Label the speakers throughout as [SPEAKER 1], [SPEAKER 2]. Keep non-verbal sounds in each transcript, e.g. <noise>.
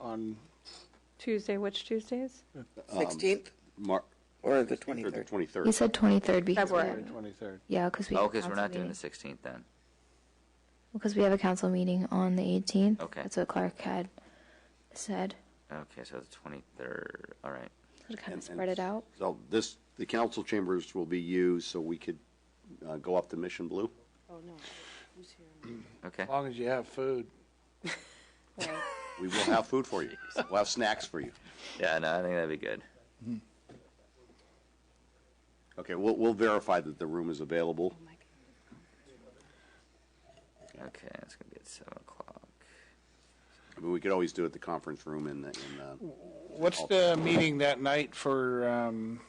[SPEAKER 1] on
[SPEAKER 2] Tuesday, which Tuesdays?
[SPEAKER 3] 16th
[SPEAKER 4] Mar-
[SPEAKER 3] or the
[SPEAKER 4] or the
[SPEAKER 3] 23rd?
[SPEAKER 5] You
[SPEAKER 4] 23rd.
[SPEAKER 5] said 23rd because we
[SPEAKER 1] February
[SPEAKER 5] have-
[SPEAKER 1] 23rd.
[SPEAKER 5] yeah, because we
[SPEAKER 6] Oh,
[SPEAKER 5] have
[SPEAKER 6] okay, so we're
[SPEAKER 5] council
[SPEAKER 6] not doing the
[SPEAKER 5] meeting.
[SPEAKER 6] 16th then.
[SPEAKER 5] because we have a council meeting on the 18th.
[SPEAKER 6] Okay.
[SPEAKER 5] that's what Clark had said.
[SPEAKER 6] Okay, so the 23rd, all right.
[SPEAKER 5] To kind
[SPEAKER 4] And-
[SPEAKER 5] of spread it out.
[SPEAKER 4] So this, the council chambers will be used so we could uh, go up to Mission Blue.
[SPEAKER 6] Okay,
[SPEAKER 1] As long as you have food.
[SPEAKER 4] We will have food
[SPEAKER 5] <laughs>
[SPEAKER 4] for you. We'll have snacks for you.
[SPEAKER 6] yeah, no, I think that'd be good.
[SPEAKER 4] Okay, we'll, we'll verify that the room is available.
[SPEAKER 6] Okay, it's gonna be at 7 o'clock.
[SPEAKER 4] I mean, we could always do it at the conference room in the, in the,
[SPEAKER 1] What's the meeting that night for, um,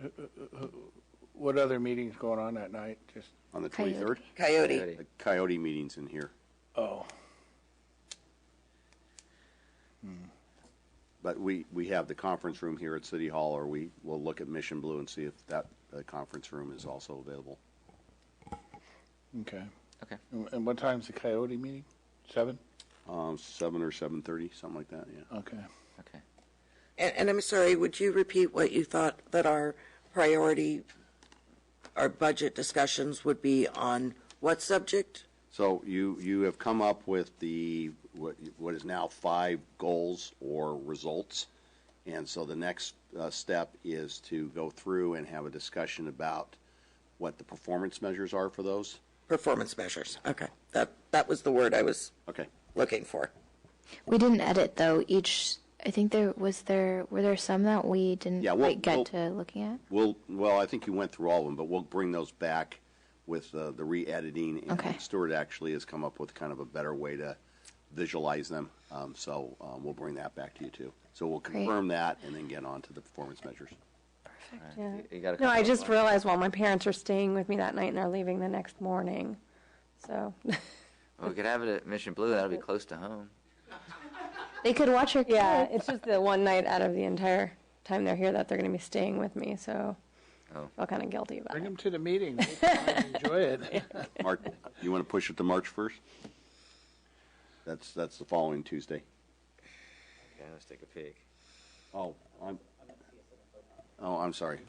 [SPEAKER 1] who- who- who- what other meetings going on that night? Just,
[SPEAKER 4] on the
[SPEAKER 5] Coyote.
[SPEAKER 4] 23rd.
[SPEAKER 3] Coyote.
[SPEAKER 6] Ready?
[SPEAKER 4] The Coyote meeting's in here.
[SPEAKER 1] oh,
[SPEAKER 4] But we, we have the conference room here at City Hall, or we will look at Mission Blue and see if that uh, conference room is also available.
[SPEAKER 1] okay.
[SPEAKER 6] Okay.
[SPEAKER 1] And and what time's the Coyote meeting? Seven?
[SPEAKER 4] Um, Seven or 7:30, something like that, yeah.
[SPEAKER 1] Okay.
[SPEAKER 6] Okay.
[SPEAKER 3] And, and I'm sorry, would you repeat what you thought that our priority, our budget discussions would be on what subject?
[SPEAKER 4] So you, you have come up with the, what, what is now five goals or results. And so the next uh, step is to go through and have a discussion about what the performance measures are for those.
[SPEAKER 3] Performance measures. Okay. That, that was the word I was
[SPEAKER 4] Okay.
[SPEAKER 3] looking for.
[SPEAKER 5] We didn't edit though. Each I think there was there were there some that we didn't
[SPEAKER 4] Yeah, we'll-
[SPEAKER 5] quite get
[SPEAKER 4] we'll-
[SPEAKER 5] to looking at.
[SPEAKER 4] We'll, well, I think you went through all of them, but we'll bring those back with uh, the re-editing.
[SPEAKER 5] Okay.
[SPEAKER 4] And Stuart actually has come up with kind of a better way to visualize them. Um, So um, we'll bring that back to you too. So we'll
[SPEAKER 5] Great.
[SPEAKER 4] confirm that and then get on to the performance measures.
[SPEAKER 5] Perfect.
[SPEAKER 2] Yeah.
[SPEAKER 6] You- you got a
[SPEAKER 2] No, I
[SPEAKER 6] couple
[SPEAKER 2] just
[SPEAKER 6] more.
[SPEAKER 2] realized, well, my parents are staying with me that night and they're leaving the next morning. So, <laughs>
[SPEAKER 6] Well, we could have it at Mission Blue, that'll be close to home.
[SPEAKER 5] They could watch your
[SPEAKER 2] yeah,
[SPEAKER 5] kids.
[SPEAKER 2] it's just the one night out of the entire time they're here that they're going to be staying with me, so I
[SPEAKER 6] Oh.
[SPEAKER 2] feel kind of guilty about
[SPEAKER 1] Bring
[SPEAKER 2] it.
[SPEAKER 1] them to the meeting. Make <laughs> them Enjoy it.
[SPEAKER 4] Mark, you want to push it to March 1st? That's, that's the following Tuesday.
[SPEAKER 6] Okay, let's take a peek.
[SPEAKER 4] Oh, I'm, oh, I'm sorry.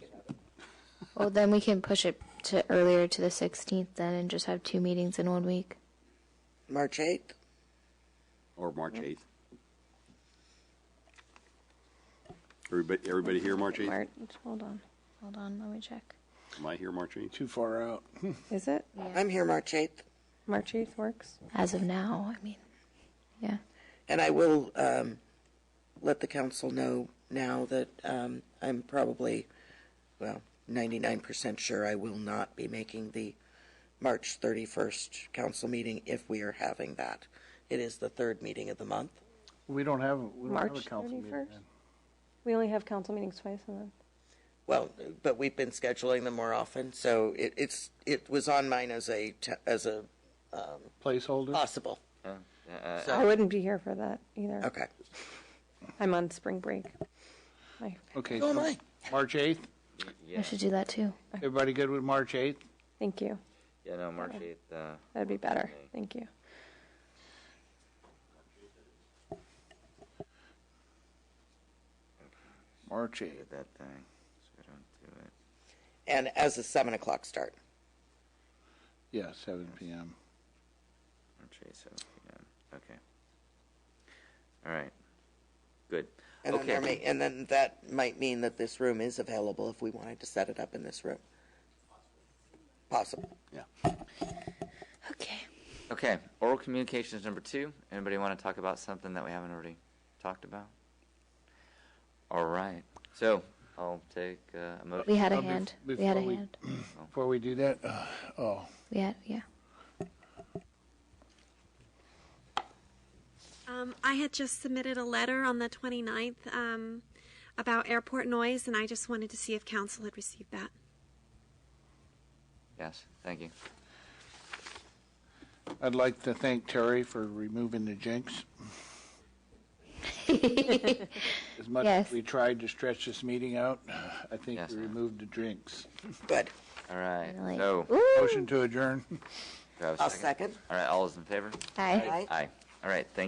[SPEAKER 5] Well, then we can push it to earlier to the 16th then, and just have two meetings in one week.
[SPEAKER 3] March 8th?
[SPEAKER 4] Or March 8th. Everybody, everybody here March 8th?
[SPEAKER 2] March, hold on.
[SPEAKER 5] Hold on, let me check.
[SPEAKER 4] Am I here March 8th?
[SPEAKER 1] Too far out.
[SPEAKER 2] Is it?
[SPEAKER 3] I'm here March 8th.
[SPEAKER 2] March 8th works?
[SPEAKER 5] As of now, I mean, yeah.
[SPEAKER 3] And I will um, let the council know now that um, I'm probably, well, 99% sure I will not be making the March 31st council meeting if we are having that. It is the third meeting of the month.
[SPEAKER 1] We don't have, we don't have a
[SPEAKER 2] March
[SPEAKER 1] council meeting.
[SPEAKER 2] 31st? We only have council meetings twice a month.
[SPEAKER 3] Well, but we've been scheduling them more often, so it, it's it was on mine as a te- as a
[SPEAKER 1] Placeholder.
[SPEAKER 3] possible.
[SPEAKER 6] Oh, yeah, uh,
[SPEAKER 3] So
[SPEAKER 2] I wouldn't be here for that either.
[SPEAKER 3] okay,
[SPEAKER 2] I'm on spring break. I
[SPEAKER 1] Okay.
[SPEAKER 3] So am
[SPEAKER 1] so
[SPEAKER 3] I.
[SPEAKER 1] March 8th.
[SPEAKER 5] I
[SPEAKER 6] Yeah,
[SPEAKER 5] should do that too.
[SPEAKER 1] Everybody good with March 8th?
[SPEAKER 2] Thank you.
[SPEAKER 6] yeah, no, March 8th, uh,
[SPEAKER 2] That'd be better. Thank you.
[SPEAKER 1] March 8th.
[SPEAKER 6] get that thing, so I don't do it.
[SPEAKER 3] and as a seven o'clock start.
[SPEAKER 1] Yeah, seven PM.
[SPEAKER 6] March 8th, 7 p.m. Okay. All right. Good.
[SPEAKER 3] And then,
[SPEAKER 6] okay.
[SPEAKER 3] there may, and then that might mean that this room is available if we wanted to set it up in this room. Possible.
[SPEAKER 5] Okay.
[SPEAKER 6] Okay, oral communications number two. Anybody want to talk about something that we haven't already talked about? All right. So I'll take uh, a motion.
[SPEAKER 5] We had a
[SPEAKER 1] Uh, bef-
[SPEAKER 5] hand. We had a
[SPEAKER 1] before we-
[SPEAKER 5] hand.
[SPEAKER 1] Before we do that, uh, oh,
[SPEAKER 5] We had, yeah.
[SPEAKER 7] Um, I had just submitted a letter on the 29th um, about airport noise, and I just wanted to see if council had received that.
[SPEAKER 6] yes, thank you.
[SPEAKER 1] I'd like to thank Terry for removing the jinx. As much as
[SPEAKER 5] Yes.
[SPEAKER 1] we tried to stretch this meeting out, I think
[SPEAKER 6] Yes.
[SPEAKER 1] we removed the jinx.
[SPEAKER 3] Good.
[SPEAKER 6] All right.
[SPEAKER 5] Really.
[SPEAKER 6] So
[SPEAKER 1] Motion to adjourn.
[SPEAKER 6] do I have a
[SPEAKER 3] I'll
[SPEAKER 6] second?
[SPEAKER 3] second.
[SPEAKER 6] All right. All is in favor.
[SPEAKER 5] Hi.
[SPEAKER 3] Aye.
[SPEAKER 6] Aye. All right. Thank.